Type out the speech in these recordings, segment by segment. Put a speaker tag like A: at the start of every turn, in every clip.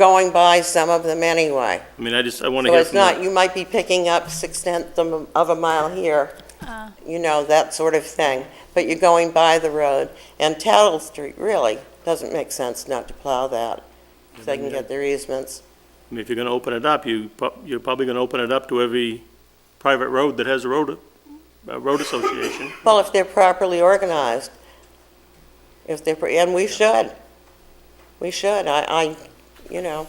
A: going by some of them anyway.
B: I mean, I just, I want to
A: So
B: hear
A: it's
B: from the
A: not, you might be picking up six-tenths of a- of a mile here, you know, that sort of thing, but you're going by the road. And Tattle Street, really, doesn't make sense not to plow that, if they can get their easements.
B: I mean, if you're gonna open it up, you, prob- you're probably gonna open it up to every private road that has a road, a road association.
A: Well, if they're properly organized, if they're, pre- and we should, we should, I, I, you know,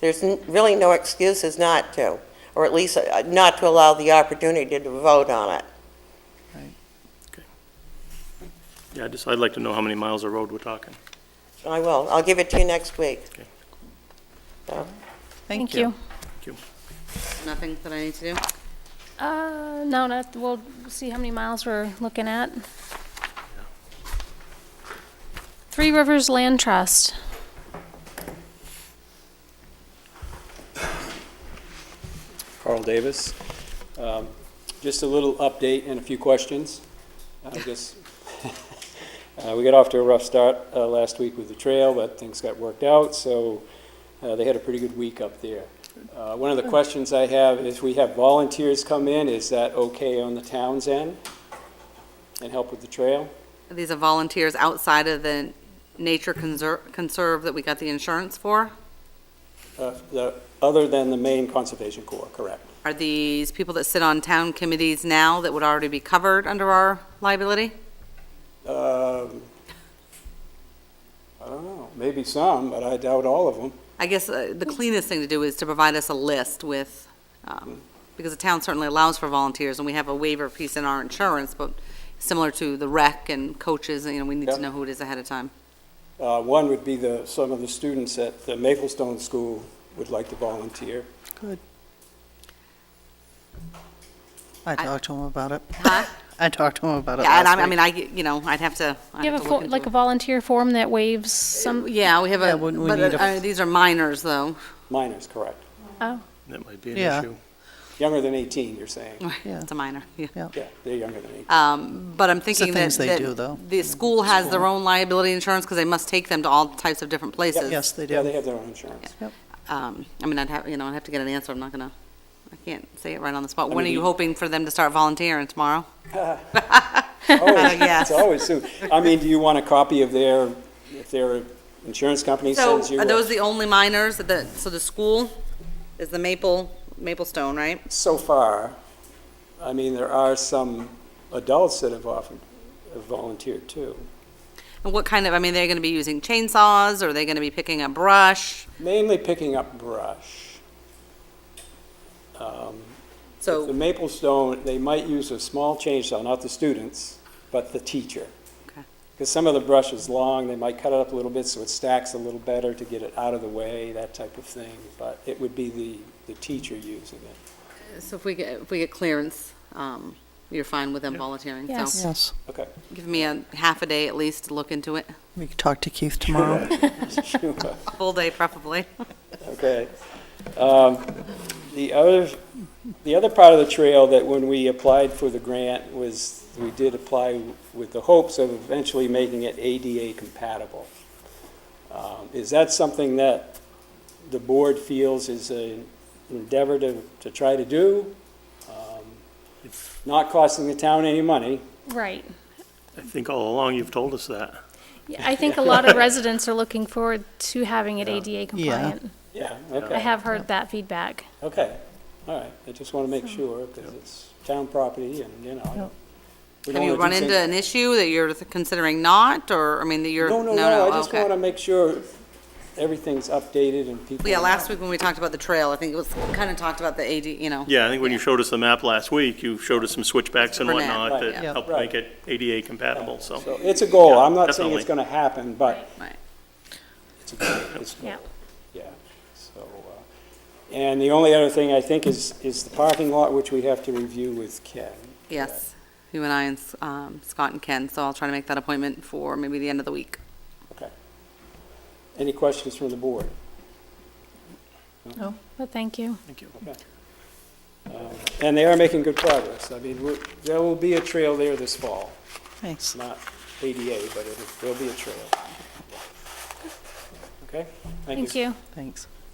A: there's n- really no excuses not to, or at least uh, not to allow the opportunity to vote on it.
B: Yeah, I just, I'd like to know how many miles of road we're talking.
A: I will, I'll give it to you next week.
B: Okay.
A: So,
C: Thank you.
D: Nothing that I need to do?
C: Uh, no, not, we'll see how many miles we're looking at. Three Rivers Land Trust.
E: Carl Davis. Um, Just a little update and a few questions. I guess, uh, we got off to a rough start uh, last week with the trail, but things got worked out, so uh, they had a pretty good week up there. Uh, One of the questions I have is, we have volunteers come in, is that okay on the town's end? And help with the trail?
D: These are volunteers outside of the nature conserve, conserve that we got the insurance for?
E: Uh, the- Other than the main Conservation Corps, correct?
D: Are these people that sit on town committees now that would already be covered under our liability?
E: Um, I don't know, maybe some, but I doubt all of them.
D: I guess uh, the cleanest thing to do is to provide us a list with, um, because the town certainly allows for volunteers, and we have a waiver piece in our insurance, but similar to the rec and coaches, you know, we need
E: Yeah.
D: to know who it is ahead of time.
E: Uh, One would be the, some of the students at the Maplestone School would like to volunteer.
F: I
D: I-
F: talked to him about it.
D: Huh?
F: I talked to him about it
D: Yeah, and
F: last
D: I, I
F: week.
D: mean, I, you know, I'd have to, I'd
C: You
D: have
C: have a,
D: to look
C: fo-
D: into
C: like
D: it.
C: a volunteer form that waives some,
D: Yeah, we have
F: Yeah,
D: a,
F: wouldn't we
D: but
F: need
D: uh,
F: a-
D: uh, these are minors, though.
E: Minors, correct.
C: oh,
B: That might be an
F: Yeah.
B: issue.
E: Younger than 18, you're saying?
D: Mm-hmm.
F: Yeah.
D: It's a minor, yeah.
E: Yeah, they're younger than 18.
D: Um, But I'm thinking that.
F: things they
D: that
F: do, though.
D: The school has their own liability insurance because they must take them to all types of different places.
F: Yes, they
E: Yeah, they
F: do.
E: have their own insurance.
D: Um, I mean, I'd have, you know, I'd have to get an answer. I'm not gonna, I can't say it right on the spot. When are
E: mean,
D: you
E: you-
D: hoping for them to start volunteering tomorrow? Oh,
E: Always,
D: yes.
E: Oh, It's always soon. I mean, do you want a copy of their, if their insurance company
D: So
E: sends you?
D: are
E: a-
D: those the only minors that, the- so the school is the Maple, Maplestone, right?
E: So far, I mean, there are some adults that have offered, have volunteered too.
D: And what kind of, I mean, they're gonna be using chainsaws? Are they gonna be picking up brush?
E: Mainly picking up brush. Um,
D: So.
E: The maple stone, they might use a small chainsaw, not the students, but the teacher.
D: Okay.
E: Because some of the brush is long, they might cut it up a little bit so it stacks a little better to get it out of the way, that type of thing. But it would be the, the teacher using it.
D: So if we get, if we get clearance, um, you're fine with them volunteering? so
C: Yes.
F: Yes,
E: Okay.
D: Give me a half a day at least to look into it,
F: we could talk to Keith tomorrow.
E: Sure.
D: full day preferably.
E: Okay. Um, The other, the other part of the trail that when we applied for the grant was, we did apply with the hopes of eventually making it ADA compatible. Um, Is that something that the board feels is an endeavor to, to try to do? Um, Not costing the town any money,
C: right.
B: I think all along you've told us that.
C: Yeah, I think a lot of residents are looking forward to having it ADA compliant.
E: yeah,
C: I
E: okay,
C: have heard that feedback.
E: okay, all right. I just want to make sure, because it's town property and, you know. I don't- we
D: Have
E: don't
D: you
E: wanna
D: run
E: do
D: into
E: things-
D: an issue that you're considering not, or, I mean, that you're?
E: No, no, no, I just
D: okay.
E: want to make sure everything's updated and people.
D: Yeah, last week when we talked about the trail, I think it was, kind of talked about the AD, you know.
B: Yeah, I think when you showed us the map last week, you showed us some switchbacks and
D: Burnett,
B: whatnot
E: right,
B: that
D: yeah.
B: helped
E: Right.
B: make it ADA compatible, so.
E: So it's a goal, I'm
B: Yeah,
E: not saying it's going
B: definitely.
E: to happen, but
D: Right.
E: it's a goal, it's a
C: Yeah.
E: goal, yeah, so. uh, And the only other thing I think is, is the parking lot, which we have to review with Ken.
D: Yes, you and I and um, Scott and Ken, so I'll try to make that appointment for maybe the end of the week.
E: Okay. Any questions from the board?
C: But thank you.
E: And they are making good progress, I mean, we're- there will be a trail there this fall,
F: Thanks.
E: not ADA, but it'll- there'll be a trail.
G: Okay?
H: Thank you.
E: Thanks.